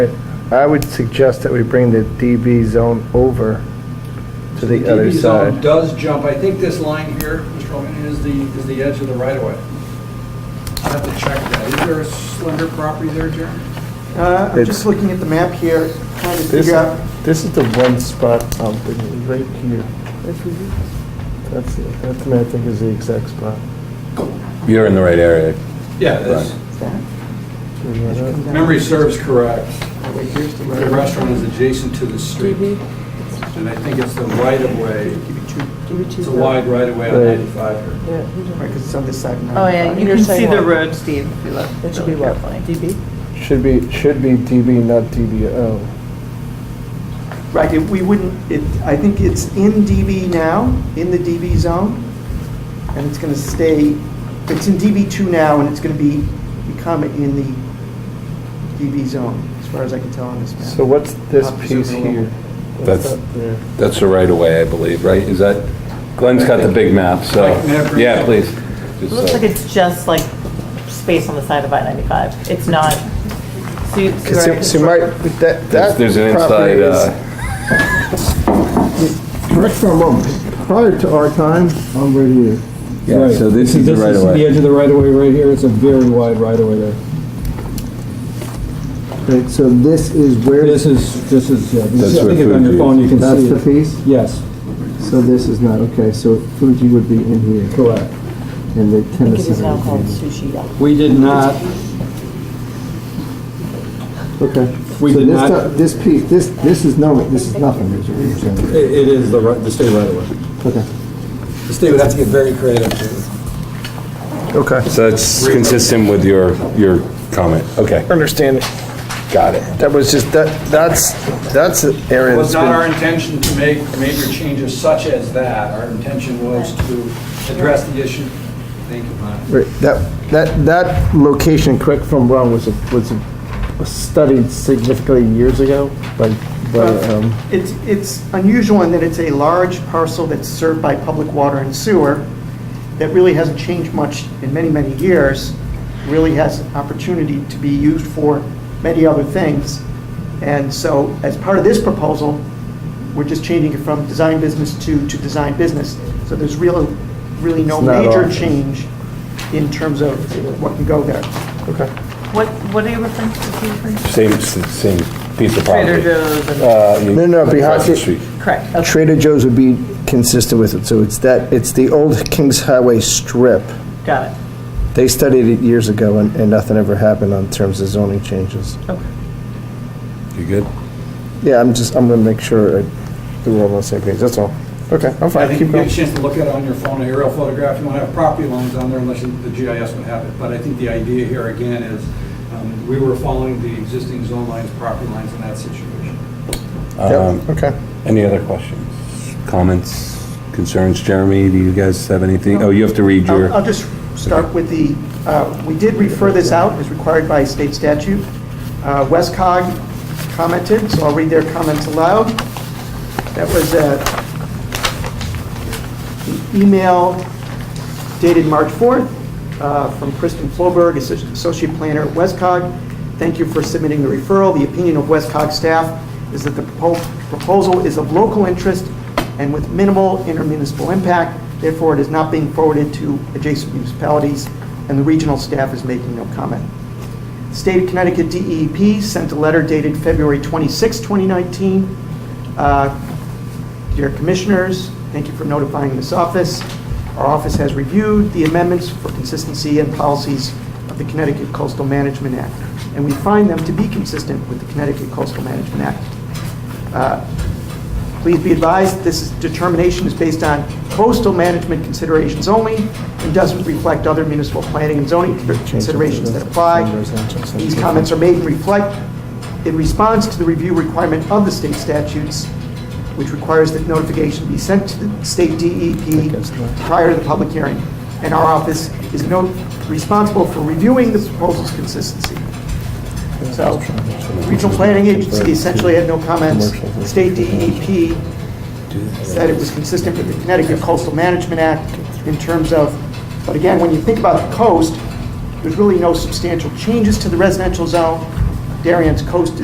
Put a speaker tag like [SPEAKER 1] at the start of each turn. [SPEAKER 1] I would suggest that we bring the DB zone over to the
[SPEAKER 2] DB
[SPEAKER 1] other
[SPEAKER 2] zone
[SPEAKER 1] side.
[SPEAKER 2] Does jump, I think this line here, Mr. Holman, is the, is the edge of the right of way. I have to check that. Is there a slender property there, Jeremy?
[SPEAKER 3] Uh, I'm
[SPEAKER 1] It's-
[SPEAKER 3] just looking at the map here, trying to
[SPEAKER 1] This,
[SPEAKER 3] figure out,
[SPEAKER 1] this is the one spot I'm thinking, right here. That's, it. that to me, I think is the exact spot.
[SPEAKER 4] You're in the right area.
[SPEAKER 2] Yeah, that's,
[SPEAKER 3] is that?
[SPEAKER 1] Uh,
[SPEAKER 3] That should come down.
[SPEAKER 2] memory serves correct.
[SPEAKER 3] Oh, wait, here's the
[SPEAKER 2] The
[SPEAKER 3] road.
[SPEAKER 2] restaurant is adjacent to the street, and I think it's the right of way. It's a wide right of way on
[SPEAKER 1] Right.
[SPEAKER 2] 95 here.
[SPEAKER 3] Right, 'cause it's on this side.
[SPEAKER 5] Oh, yeah, you
[SPEAKER 6] Your
[SPEAKER 5] can see the
[SPEAKER 6] sidewalk.
[SPEAKER 5] road, Steve, if you look
[SPEAKER 6] That should be
[SPEAKER 5] really
[SPEAKER 6] what,
[SPEAKER 5] carefully.
[SPEAKER 6] DB?
[SPEAKER 1] Should be, should be DB, not DBO.
[SPEAKER 3] Right, it- we wouldn't, it, I think it's in DB now, in the DB zone, and it's gonna stay, it's in DB two now, and it's gonna be, become in the DB zone, as far as I can tell on this map.
[SPEAKER 1] So what's this
[SPEAKER 3] Opposite
[SPEAKER 1] piece
[SPEAKER 3] of the
[SPEAKER 1] here?
[SPEAKER 4] That's-
[SPEAKER 1] What's up there?
[SPEAKER 4] That's the right of way, I believe, right? Is that, Glenn's got the big map, so,
[SPEAKER 2] Mike, may I bring it
[SPEAKER 4] yeah,
[SPEAKER 2] up?
[SPEAKER 4] please.
[SPEAKER 6] It
[SPEAKER 4] Just,
[SPEAKER 6] looks
[SPEAKER 4] uh,
[SPEAKER 6] like it's just like space on the side of I-95. It's not, see, see where I
[SPEAKER 1] See, see,
[SPEAKER 6] construct-
[SPEAKER 1] my, that,
[SPEAKER 4] There's
[SPEAKER 1] that
[SPEAKER 4] there's an
[SPEAKER 1] property
[SPEAKER 4] inside,
[SPEAKER 1] is.
[SPEAKER 4] uh,
[SPEAKER 7] Correct me if I'm wrong, prior to our time, I'm right here.
[SPEAKER 4] Yeah,
[SPEAKER 7] Right.
[SPEAKER 4] so this is the right of
[SPEAKER 7] This
[SPEAKER 4] way.
[SPEAKER 7] is the edge of the right-of-way right here, it's a very wide right-of-way there.
[SPEAKER 8] Right, so this is where,
[SPEAKER 7] This is, this is, yeah, this
[SPEAKER 4] That's
[SPEAKER 7] is- I
[SPEAKER 4] where
[SPEAKER 7] think if on
[SPEAKER 4] Fuji
[SPEAKER 7] your
[SPEAKER 4] is.
[SPEAKER 7] phone you can
[SPEAKER 8] that's
[SPEAKER 7] see
[SPEAKER 8] the
[SPEAKER 7] it.
[SPEAKER 8] piece?
[SPEAKER 7] Yes,
[SPEAKER 8] So this is not, okay, so Fuji would be in here,
[SPEAKER 7] correct.
[SPEAKER 8] and the
[SPEAKER 6] I think
[SPEAKER 8] tennis
[SPEAKER 6] it is
[SPEAKER 8] center
[SPEAKER 6] now called
[SPEAKER 8] would be in
[SPEAKER 6] Sushi Yacht.
[SPEAKER 7] We did not,
[SPEAKER 4] uh,
[SPEAKER 8] here. Okay.
[SPEAKER 7] We
[SPEAKER 8] So
[SPEAKER 7] did
[SPEAKER 8] this
[SPEAKER 7] not-
[SPEAKER 8] do- This piece, this, this is no, this is nothing, is what you're saying.
[SPEAKER 7] it it is the right, the state right-of-way.
[SPEAKER 8] Okay.
[SPEAKER 7] The state would have to get very creative
[SPEAKER 1] Okay,
[SPEAKER 4] So that's consistent with your, your comment. Okay,
[SPEAKER 1] understand,
[SPEAKER 4] got it.
[SPEAKER 1] that was just, that, that's, that's an area
[SPEAKER 2] It was
[SPEAKER 1] that's
[SPEAKER 2] not our
[SPEAKER 1] been.
[SPEAKER 2] intention to make major changes such as that. Our intention was to address the issue. Thank you, Mike.
[SPEAKER 1] Right, That, that, that location, correct from wrong, was, a- was a- was studied significantly years ago by, by, um,
[SPEAKER 3] It's, it's unusual in that it's a large parcel that's served by public water and sewer that really hasn't changed much in many, many years, really has opportunity to be used for many other things. And so as part of this proposal, we're just changing it from design business to, to design business. So there's real, really no
[SPEAKER 1] It's not
[SPEAKER 3] major
[SPEAKER 1] off.
[SPEAKER 3] change in terms of what can go there.
[SPEAKER 1] okay.
[SPEAKER 5] What, what are you referring to, Steve? referring to?
[SPEAKER 4] Same, same piece of property.
[SPEAKER 5] Trader Joe's and,
[SPEAKER 4] Uh, you-
[SPEAKER 1] No, no, behind
[SPEAKER 4] across the
[SPEAKER 1] it-
[SPEAKER 4] street.
[SPEAKER 5] correct, okay.
[SPEAKER 1] Trader Joe's would be consistent with it, so it's that, it's the old Kings Highway strip.
[SPEAKER 5] got it.
[SPEAKER 1] They studied it years ago, and, and nothing ever happened on terms of zoning changes.
[SPEAKER 4] You good?
[SPEAKER 1] Yeah, I'm just, I'm gonna make sure I- that we're all on the same page, that's all. Okay, I'm
[SPEAKER 2] I
[SPEAKER 1] fine,
[SPEAKER 2] think
[SPEAKER 1] keep
[SPEAKER 2] you get a
[SPEAKER 1] going.
[SPEAKER 2] chance to look at it on your phone, an aerial photograph, you won't have property lines on there unless you- the GIS would have it. But I think the idea here again is, um, we were following the existing zone lines, property lines in that situation.
[SPEAKER 1] Yep, okay.
[SPEAKER 4] Um, Any other questions, comments, concerns? Jeremy, do you guys have anything? Oh, you have to read your.
[SPEAKER 3] I'll I'll just start with the, uh, we did refer this out as required by state statute. Uh, Westcog commented, so I'll read their comments aloud. That was uh, an email dated March 4th uh, from Kristen Floberg, associ- Associate Planner at Westcog. Thank you for submitting the referral. The opinion of Westcog staff is that the propo- proposal is of local interest and with minimal intermunicipal impact. Therefore, it is not being forwarded to adjacent municipalities, and the regional staff is making no comment. State of Connecticut DEP sent a letter dated February 26, 2019. Uh, Dear Commissioners, thank you for notifying this office. Our office has reviewed the amendments for consistency and policies of the Connecticut Coastal Management Act, and we find them to be consistent with the Connecticut Coastal Management Act. Uh, Please be advised, this is- determination is based on coastal management considerations only and doesn't reflect other municipal planning and zoning considerations that apply. These comments are made and reflect in response to the review requirement of the state statutes, which requires that notification be sent to the state DEP prior to the public hearing. And our office is no, responsible for reviewing the proposal's consistency. So, regional planning agency essentially had no comments. State DEP said it was consistent with the Connecticut Coastal Management Act in terms of, but again, when you think about the coast, there's really no substantial changes to the residential zone. Darien's coast is.